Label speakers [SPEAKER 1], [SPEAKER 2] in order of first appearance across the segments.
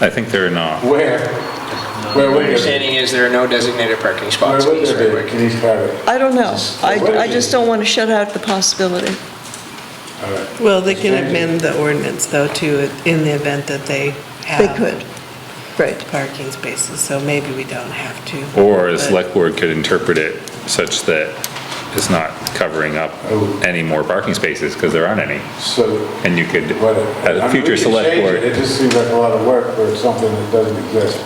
[SPEAKER 1] I think there are not.
[SPEAKER 2] Where? Where would there
[SPEAKER 3] My
[SPEAKER 2] be?
[SPEAKER 3] understanding is there are no designated parking
[SPEAKER 2] Where
[SPEAKER 3] spots in
[SPEAKER 2] would
[SPEAKER 3] East
[SPEAKER 2] there be
[SPEAKER 3] Hardwick.
[SPEAKER 2] in East Hardwick?
[SPEAKER 4] I don't know. I, I just don't want to shut out the possibility.
[SPEAKER 2] All right.
[SPEAKER 5] Well, they can amend the ordinance though too, in the event that they
[SPEAKER 4] They
[SPEAKER 5] have.
[SPEAKER 4] could. Right.
[SPEAKER 5] Parking spaces, so maybe we don't have to.
[SPEAKER 1] Or the
[SPEAKER 5] But-
[SPEAKER 1] select board could interpret it such that it's not covering up
[SPEAKER 2] Oh.
[SPEAKER 1] any more parking spaces, because there aren't any.
[SPEAKER 2] So,
[SPEAKER 1] And you could,
[SPEAKER 2] what?
[SPEAKER 1] at
[SPEAKER 2] I
[SPEAKER 1] a
[SPEAKER 2] mean, we
[SPEAKER 1] future
[SPEAKER 2] could
[SPEAKER 1] select
[SPEAKER 2] change it.
[SPEAKER 1] board,
[SPEAKER 2] It just seems like a lot of work for something that doesn't exist.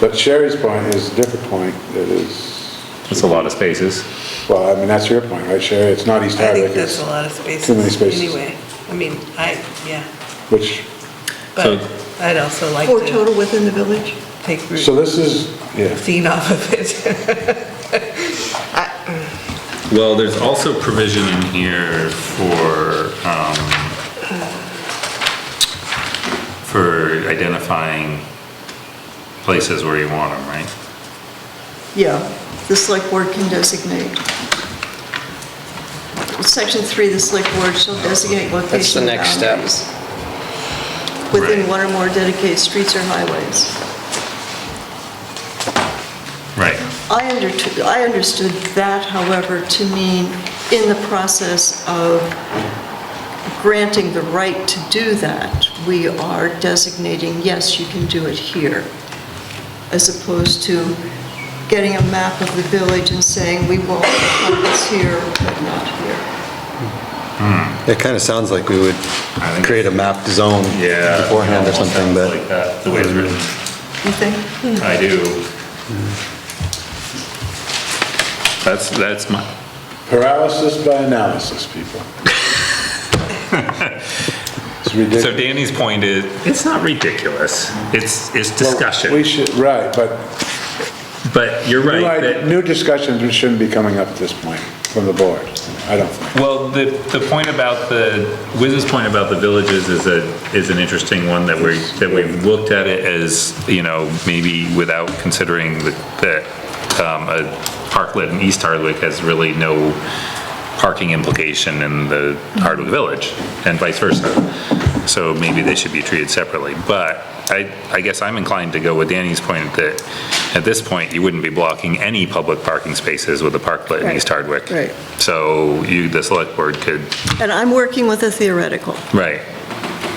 [SPEAKER 2] But Sherry's point is a different point, that is,
[SPEAKER 1] it's a lot of spaces.
[SPEAKER 2] well, I mean, that's your point, right, Sherry? It's not East
[SPEAKER 5] I
[SPEAKER 2] Hardwick,
[SPEAKER 5] think that's
[SPEAKER 2] it's,
[SPEAKER 5] a lot of spaces.
[SPEAKER 2] many spaces.
[SPEAKER 5] Anyway, I mean, I, yeah,
[SPEAKER 2] which,
[SPEAKER 5] but I'd also like
[SPEAKER 4] Four
[SPEAKER 5] to
[SPEAKER 4] total within the village?
[SPEAKER 5] take
[SPEAKER 2] so
[SPEAKER 5] Route
[SPEAKER 2] this is, yeah.
[SPEAKER 5] 15 off of it.
[SPEAKER 1] Well, there's also provision in here for, um, for identifying places where you want them, right?
[SPEAKER 4] Yeah, the select board can designate. Section three, the select board shall designate location.
[SPEAKER 3] That's the next step.
[SPEAKER 4] boundaries Within
[SPEAKER 1] Right.
[SPEAKER 4] one or more dedicated streets or highways.
[SPEAKER 1] Right.
[SPEAKER 4] I undertook, I understood that, however, to mean in the process of granting the right to do that, we are designating, yes, you can do it here, as opposed to getting a map of the village and saying, we won't put this here, but not here.
[SPEAKER 6] It kind of sounds like we would
[SPEAKER 1] think-
[SPEAKER 6] create a mapped zone
[SPEAKER 1] Yeah.
[SPEAKER 6] beforehand or
[SPEAKER 1] almost
[SPEAKER 6] something,
[SPEAKER 1] sounds
[SPEAKER 6] but
[SPEAKER 1] Like that, the way it's written.
[SPEAKER 4] You think?
[SPEAKER 1] I do. That's, that's my,
[SPEAKER 2] Paralysis by analysis, people. It's
[SPEAKER 1] so
[SPEAKER 2] ridiculous.
[SPEAKER 1] Danny's point is, it's not ridiculous. It's, it's
[SPEAKER 2] We
[SPEAKER 1] discussion.
[SPEAKER 2] should, right, but
[SPEAKER 1] But you're
[SPEAKER 2] new
[SPEAKER 1] right
[SPEAKER 2] ide-
[SPEAKER 1] that,
[SPEAKER 2] new discussions shouldn't be coming up at this point from the board, I don't think.
[SPEAKER 1] well, the, the point about the, Wiz's point about the villages is a, is an interesting one that we, that we've looked at it as, you know, maybe without considering that, that, um, a parklet in East Hardwick has really no parking implication in the Hardwick Village and vice versa. So maybe they should be treated separately. But I, I guess I'm inclined to go with Danny's point that at this point, you wouldn't be blocking any public parking spaces with a parklet in East Hardwick.
[SPEAKER 4] right.
[SPEAKER 1] So you, the select board could,
[SPEAKER 4] And I'm working with a theoretical.
[SPEAKER 1] right.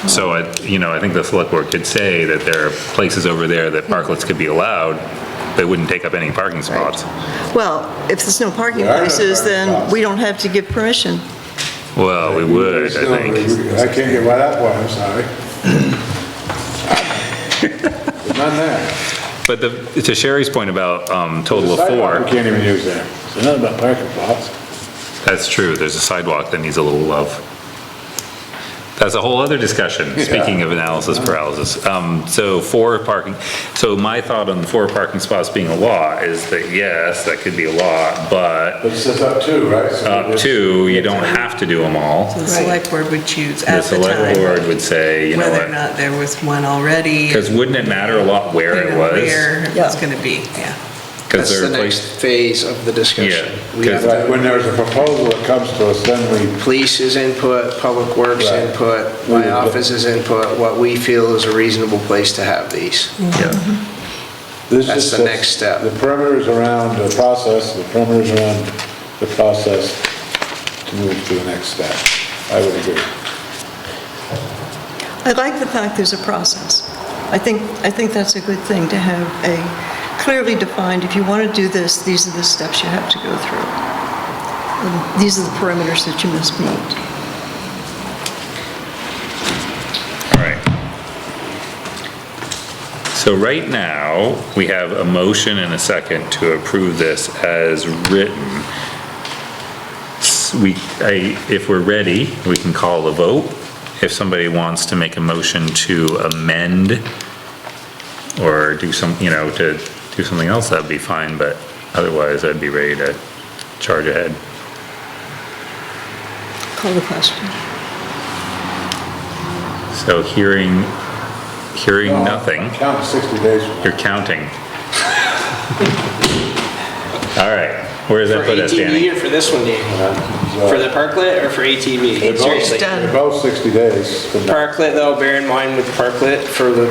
[SPEAKER 1] So I, you know, I think the select board could say that there are places over there that parklets could be allowed, but wouldn't take up any parking spots.
[SPEAKER 4] Well, if there's no parking
[SPEAKER 2] There are no
[SPEAKER 4] places, then
[SPEAKER 2] parking
[SPEAKER 4] we don't have to give permission.
[SPEAKER 1] Well, we would, I think.
[SPEAKER 2] I can't get right up one, I'm sorry. There's None there.
[SPEAKER 1] But the, to Sherry's point about, um, total of
[SPEAKER 2] Sidewalk We
[SPEAKER 1] four,
[SPEAKER 2] can't even use there. So nothing about parking lots.
[SPEAKER 1] that's true, there's a sidewalk that needs a little love. That's a whole other discussion, speaking of analysis paralysis. Um, so four parking, so my thought on the four parking spots being a law is that yes, that could be a law, but
[SPEAKER 2] But it says up two, right? So
[SPEAKER 1] up
[SPEAKER 2] it's-
[SPEAKER 1] to, you don't have to do them all.
[SPEAKER 5] The select board would choose
[SPEAKER 1] The
[SPEAKER 5] at the
[SPEAKER 1] select
[SPEAKER 5] time
[SPEAKER 1] board would say, you know
[SPEAKER 5] whether or
[SPEAKER 1] what,
[SPEAKER 5] not there was one already.
[SPEAKER 1] because wouldn't it matter a lot where it
[SPEAKER 5] and
[SPEAKER 1] was?
[SPEAKER 5] Where it
[SPEAKER 4] Yeah.
[SPEAKER 5] was gonna be, yeah.
[SPEAKER 1] Because
[SPEAKER 3] That's
[SPEAKER 1] there
[SPEAKER 3] the
[SPEAKER 1] are
[SPEAKER 3] next
[SPEAKER 1] places,
[SPEAKER 3] phase of the discussion.
[SPEAKER 1] Yeah,
[SPEAKER 3] We have
[SPEAKER 1] because-
[SPEAKER 2] Right, when there's a proposal that comes to us, then we,
[SPEAKER 3] police's input, public works
[SPEAKER 2] Right.
[SPEAKER 3] input,
[SPEAKER 2] We-
[SPEAKER 3] my office's input, what we feel is a reasonable place to have these.
[SPEAKER 1] yeah,
[SPEAKER 2] this is.
[SPEAKER 3] That's the
[SPEAKER 2] just-
[SPEAKER 3] next step.
[SPEAKER 2] The perimeter's around the process, the perimeter's around the process to move to the next step. I would agree.
[SPEAKER 4] I like the fact there's a process. I think, I think that's a good thing, to have a clearly defined, if you want to do this, these are the steps you have to go through. And These are the parameters that you must meet.
[SPEAKER 1] all right. So right now, we have a motion and a second to approve this as written. S- We, I, if we're ready, we can call a vote. If somebody wants to make a motion to amend or do some, you know, to do something else, that'd be fine, but otherwise I'd be ready to charge ahead.
[SPEAKER 4] Call the question.
[SPEAKER 1] So hearing, hearing nothing,
[SPEAKER 2] Count 60 days from now.
[SPEAKER 1] you're counting. All right, where does that
[SPEAKER 3] For
[SPEAKER 1] put us,
[SPEAKER 3] ATV
[SPEAKER 1] Danny?
[SPEAKER 3] or for this one, Danny?
[SPEAKER 2] So-
[SPEAKER 3] For the parklet or for ATV?
[SPEAKER 2] They're both-
[SPEAKER 3] Seriously.
[SPEAKER 2] They're both 60 days from now.
[SPEAKER 3] Parklet though, bear in mind with parklet for the